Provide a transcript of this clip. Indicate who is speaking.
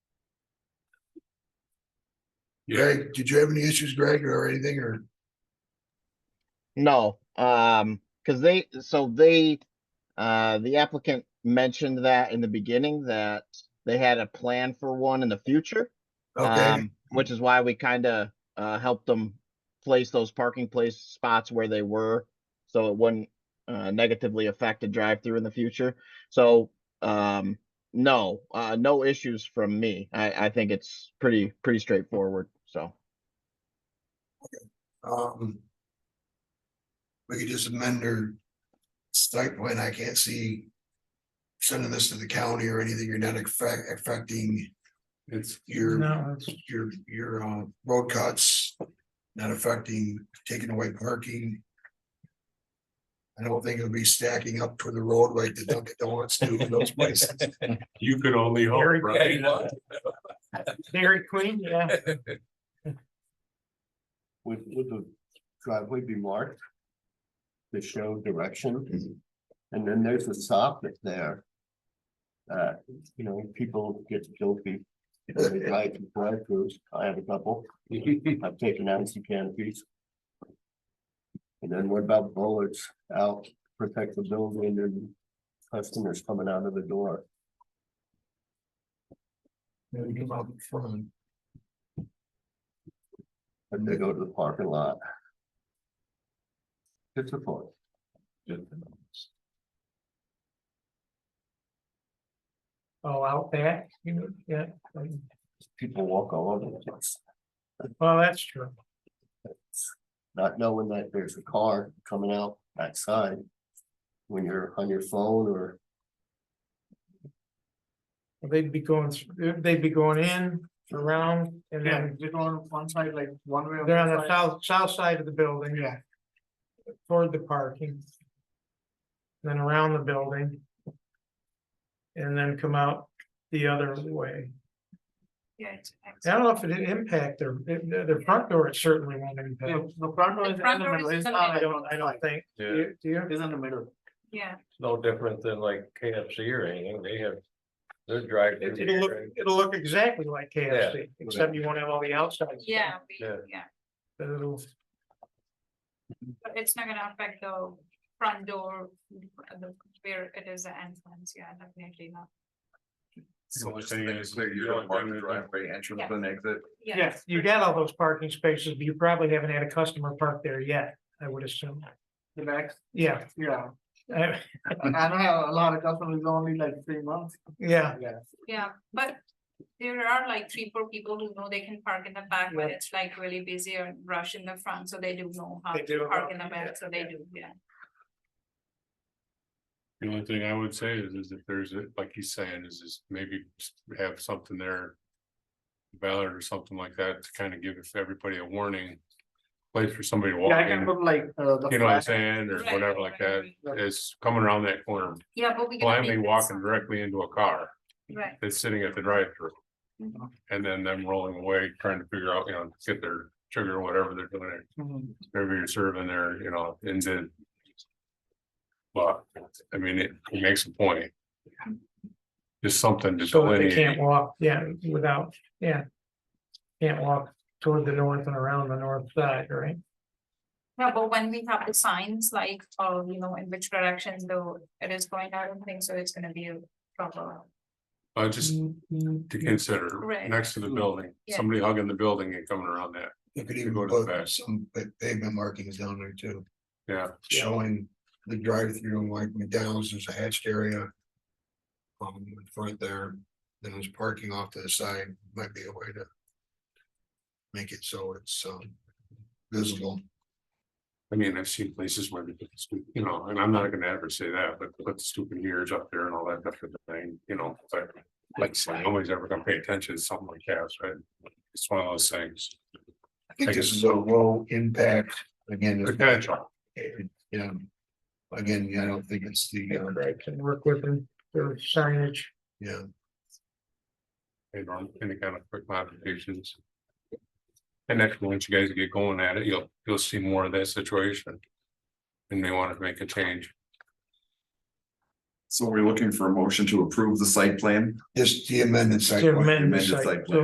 Speaker 1: Greg, did you have any issues, Greg, or anything, or?
Speaker 2: No, um, because they, so they, uh, the applicant mentioned that in the beginning that they had a plan for one in the future.
Speaker 1: Okay,
Speaker 2: um, Which is why we kind of, uh, helped them place those parking place spots where they were. So it wouldn't, uh, negatively affect a drive-through in the future. So, um, no, uh, no issues from me. I, I think it's pretty, pretty straightforward, so.
Speaker 1: um. We could just amend their site plan. I can't see. Sending this to the county or anything. You're not affect, affecting
Speaker 3: It's,
Speaker 1: your,
Speaker 4: No, it's-
Speaker 1: your, your, uh, road cuts. Not affecting, taking away parking. I don't think it'll be stacking up to the road like the Dunkin' Donuts do in those places.
Speaker 3: you could only
Speaker 4: Very
Speaker 3: hope, right?
Speaker 4: good. Oh, Dairy Queen, yeah,
Speaker 5: Would, would the driveway be marked? To show direction? And then there's a soffit there. Uh, you know, people get guilty. if they Drive, drive throughs, I have a couple, I've taken out some canopies. And then what about bullets out, protect the building and customers coming out of the door?
Speaker 1: Maybe come out in front.
Speaker 5: If they go to the parking lot. It's a point.
Speaker 4: oh, out back, you know, yeah,
Speaker 5: people walk all over the place.
Speaker 4: well, that's true.
Speaker 5: not knowing that there's a car coming out backside. When you're on your phone or
Speaker 4: They'd be going, thr- they'd be going in, around, and
Speaker 6: Yeah,
Speaker 4: then
Speaker 6: they're going one side, like one way. or
Speaker 4: they're on
Speaker 6: one
Speaker 4: the
Speaker 6: side.
Speaker 4: south, south side of the building.
Speaker 6: Yeah.
Speaker 4: Toward the parking. Then around the building. And then come out the other way.
Speaker 7: Yeah. it's next.
Speaker 4: I don't know if it did impact their, their their front door, it certainly won't impact.
Speaker 6: The the front one is in
Speaker 7: front
Speaker 6: the
Speaker 7: door
Speaker 6: middle,
Speaker 7: is
Speaker 6: it's
Speaker 7: in the
Speaker 6: not
Speaker 4: I
Speaker 6: like,
Speaker 4: don't, I don't think, do you- do you?
Speaker 6: it's in the middle.
Speaker 7: Yeah,
Speaker 3: No different than like KFC or anything, they have, they're driving.
Speaker 4: It- It'll look, it'll look exactly like KFC, except you won't have all the outside. stuff,
Speaker 7: yeah, we-
Speaker 3: Yeah.
Speaker 7: yeah,
Speaker 4: But it'll,
Speaker 7: but it's not gonna affect the front door, the, where it is the entrance, yeah, definitely not.
Speaker 3: So much thing is, you don't mark the driveway entrance
Speaker 7: and
Speaker 3: exit.
Speaker 4: yeah, you got all those parking spaces, but you probably haven't had a customer park there yet, I would assume.
Speaker 6: The back,
Speaker 4: Yeah,
Speaker 6: yeah,
Speaker 4: I-
Speaker 6: I I don't have a lot of customers, only like three months,
Speaker 4: yeah,
Speaker 6: yeah.
Speaker 7: Yeah, but there are like three, four people who know they can park in the back, but
Speaker 4: Yeah.
Speaker 7: it's like really busy or rush in the front, so they do know how
Speaker 4: They do
Speaker 7: to
Speaker 4: know,
Speaker 7: park in the
Speaker 4: yeah,
Speaker 7: back, so they
Speaker 4: yeah.
Speaker 7: do, yeah.
Speaker 3: The only thing I would say is, is if there's, a- like he's saying, is, is maybe have something there. Valid or something like that to kind of give everybody a warning. Place for somebody to walk
Speaker 6: Yeah, I can
Speaker 3: in,
Speaker 6: put like, uh, the.
Speaker 3: you know what I'm
Speaker 6: flag,
Speaker 3: saying, or
Speaker 7: Right,
Speaker 3: whatever like
Speaker 7: right,
Speaker 3: that,
Speaker 7: right.
Speaker 3: is coming around that corner,
Speaker 7: Yeah, but we. can
Speaker 3: blindly walking directly into a car.
Speaker 7: Right,
Speaker 3: that's sitting at the drive-through.
Speaker 7: Mhm.
Speaker 3: And then them rolling away, trying to figure out, you know, get their sugar or whatever they're doing,
Speaker 6: mhm.
Speaker 3: whatever you're serving there, you know, and then. But, I mean, it it makes a point. Just something to
Speaker 4: so that they
Speaker 3: delineate,
Speaker 4: can't walk, yeah, without, yeah. Can't walk toward the north and around the north side, right?
Speaker 7: yeah, but when we have the signs, like, uh, you know, in which direction though it is going, I don't think so, it's gonna be a proper.
Speaker 3: uh, just
Speaker 6: Mm-hmm.
Speaker 3: to consider,
Speaker 7: Mm-hmm. Right.
Speaker 3: next to
Speaker 4: Mm-hmm.
Speaker 3: the building,
Speaker 7: Yeah.
Speaker 3: somebody hugging the building and coming around that,
Speaker 1: You could
Speaker 3: You
Speaker 1: even
Speaker 3: go to the
Speaker 1: put
Speaker 3: back.
Speaker 1: some pa- pavement markings down there too,
Speaker 3: yeah.
Speaker 1: showing the drive-through like McDonald's, there's a hatched area. Um, in front there, then there's parking off to the side, might be a way to. Make it so it's um visible.
Speaker 3: I mean, I've seen places where, they put the stu- you know, and I'm not gonna ever say that, but put the stupid ears up there and all that kind of thing, you know, but. Like, so nobody's ever gonna pay attention to something like that, right? It's one of those things,
Speaker 1: I think
Speaker 3: I
Speaker 1: this
Speaker 3: guess-
Speaker 1: is a low impact, again, it's-
Speaker 3: potential,
Speaker 1: yeah. Again, I don't think it's the, uh,
Speaker 4: Right, can work with them, their signage,
Speaker 1: yeah,
Speaker 3: you know, any kind of quick modifications. And actually, once you guys get going at it, you'll, you'll see more of that situation. And they want to make a change.
Speaker 8: So are we looking for a motion to approve the site plan?
Speaker 1: just the amendment.
Speaker 4: to amend the
Speaker 8: amended
Speaker 4: site,
Speaker 8: site
Speaker 4: to
Speaker 8: plan.